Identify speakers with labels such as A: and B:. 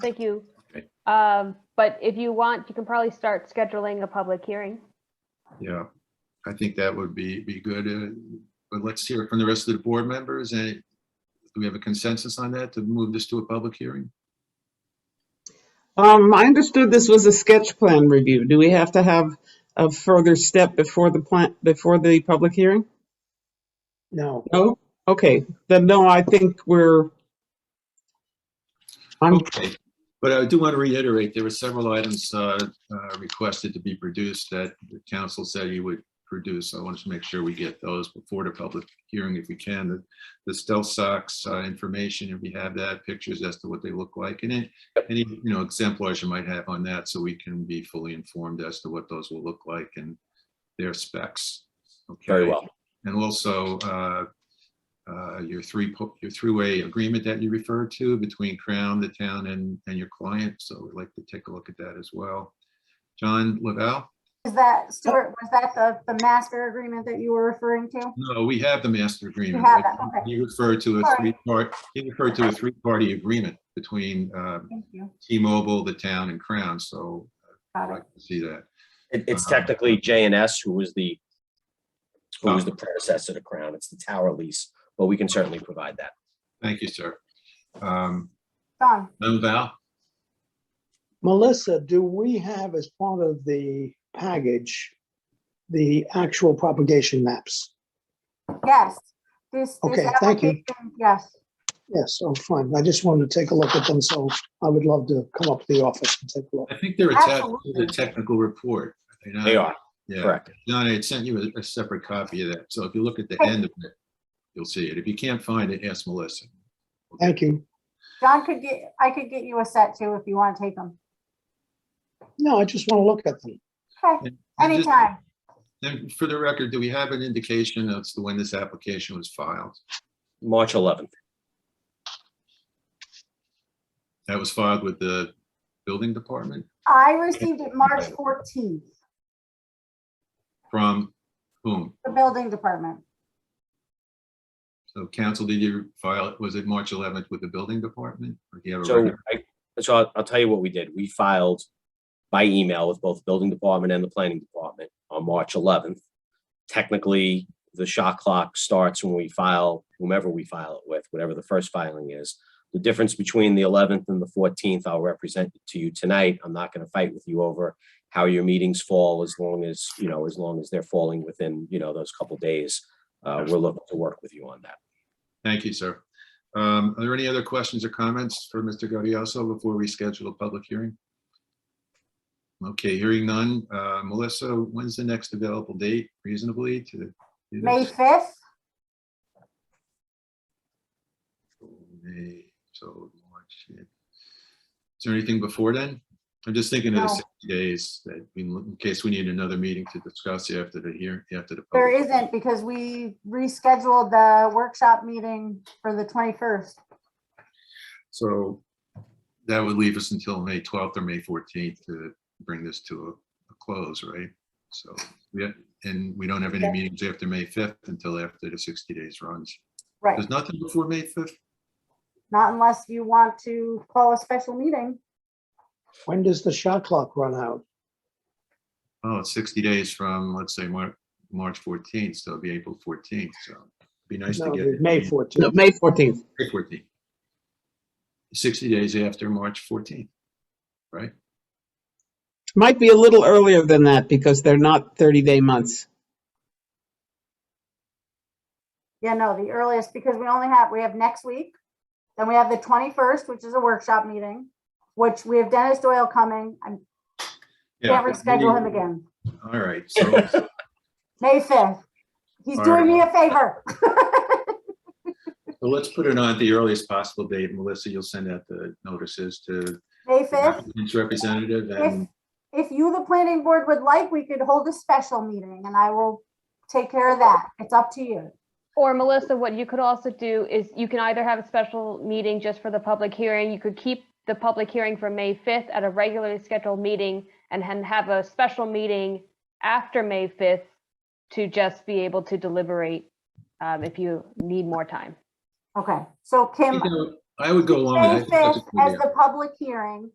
A: Thank you.
B: Okay.
A: Um, But if you want, you can probably start scheduling a public hearing.
B: Yeah, I think that would be, be good. uh, But let's hear it from the rest of the board members. And do we have a consensus on that to move this to a public hearing?
C: Um, I understood this was a sketch plan review. Do we have to have a further step before the plan, before the public hearing?
D: No,
C: No? Okay, then no, I think we're, I'm,
B: Okay, but I do want to reiterate, there were several items uh, uh, requested to be produced that the council said you would produce. I wanted to make sure we get those before the public hearing if we can. The- The stealth socks uh, information, if we have that, pictures as to what they look like, and then any, you know, exemplars you might have on that, so we can be fully informed as to what those will look like and their specs.
E: Very
B: Okay?
E: well.
B: And also, uh, uh, your three, po- your three-way agreement that you referred to between Crown, the town, and, and your client. So we'd like to take a look at that as well. John Lavelle?
F: Is that, Stuart, was that the, the master agreement that you were referring to?
B: No, we have the master agreement.
F: have that, okay.
B: He referred to a
F: Sorry.
B: three-part, he referred to a three-party agreement between um,
F: Thank you.
B: T-Mobile, the town, and Crown. So I'd
F: Got it.
B: like to see that.
E: It, it's
B: Um,
E: technically J and S who was the, who was
B: Oh.
E: the predecessor to Crown. It's the tower lease, but we can certainly provide that.
B: Thank you, sir. Um,
F: Done.
B: Lavelle?
D: Melissa, do we have as part of the package, the actual propagation maps?
F: Yes. This, this
D: Okay, thank you.
F: application- Yes,
D: Yes, oh, fine. I just wanted to take a look at them, so I would love to come up to the office and take a look.
B: I think they're attached to the
F: Absolutely.
B: technical report. not-
E: They are,
B: Uh-huh. Yeah.
E: correct.
B: John, I had sent you a- a separate copy of that, so if you look at the end of it, you'll see it. If you can't find it, ask Melissa.
D: Thank you.
F: John could get, I could get you a set too if you want to take them.
D: No, I just want to look at them.
F: Okay,
B: And just-
F: anytime.
B: And for the record, do we have an indication as to when this application was filed?
E: March eleventh.
B: That was filed with the building department
F: I received it March fourteenth,
B: from whom?
F: the building department.
B: So council, did you file, it? was it March 11th with the building department? Or do you have a
E: So
B: record?
E: I, so I'll, I'll tell you what we did. We filed by email with both the building department and the planning department on March eleventh. Technically, the shot clock starts when we file whomever we file it with, whatever the first filing is. The difference between the eleventh and the fourteenth, I'll represent it to you tonight. I'm not gonna fight with you over how your meetings fall as long as, you know, as long as they're falling within, you know, those couple days. Uh, we're looking to work with you on that.
B: Thank you, sir. Um, Are there any other questions or comments for Mr. Gaudioso before we schedule a public hearing? Okay, hearing none. Uh, Melissa, when's the next available date reasonably to? do this?
F: May fifth,
B: May, So March. yeah. Is there anything before then? I'm just thinking of the
F: No.
B: 60 days that we- in case we need another meeting to discuss after the hearing, after the.
F: there
B: public-
F: isn't because we rescheduled the workshop meeting for the twenty-first.
B: So that would leave us until May 12th or May 14th to bring this to a, a close, right? So, yeah, and we don't have any meetings after May 5th until after the 60 days runs.
F: Right,
B: There's nothing before May 5th?
F: not unless you want to call a special meeting.
D: When does the shot clock run out?
B: Oh, it's 60 days from, let's say, Mar- March 14th, so it'll be April 14th, so it'd be nice to
D: No,
B: get. it
D: May
B: in
C: no,
D: 14th.
C: May 14th.
B: May 14th. 60 days after March 14th, right?
C: Might be a little earlier than that because they're not 30-day months.
F: Yeah, no, the earliest, because we only have, we have next week. Then we have the twenty-first, which is a workshop meeting, which we have Dennis Doyle coming. I can't reschedule him again.
B: All right, so.
F: May fifth. He's
B: All
F: doing me a favor.
B: So let's put it on at the earliest possible date. Melissa, you'll send out the notices to
F: May
B: the
F: fifth.
B: applicant's representative
F: If,
B: and,
F: if you, the planning board would like, we could hold a special meeting and I will take care of that. It's up to you.
A: Or Melissa, what you could also do is you can either have a special meeting just for the public hearing. You could keep the public hearing for May 5th at a regularly scheduled meeting and then have a special meeting after May 5th to just be able to deliberate um, if you need more time.
F: Okay, so
B: you
F: Kim,
B: know, I would go along
F: May
B: with that. I think that's a
F: fifth
B: good
F: as
B: idea.
F: the public hearing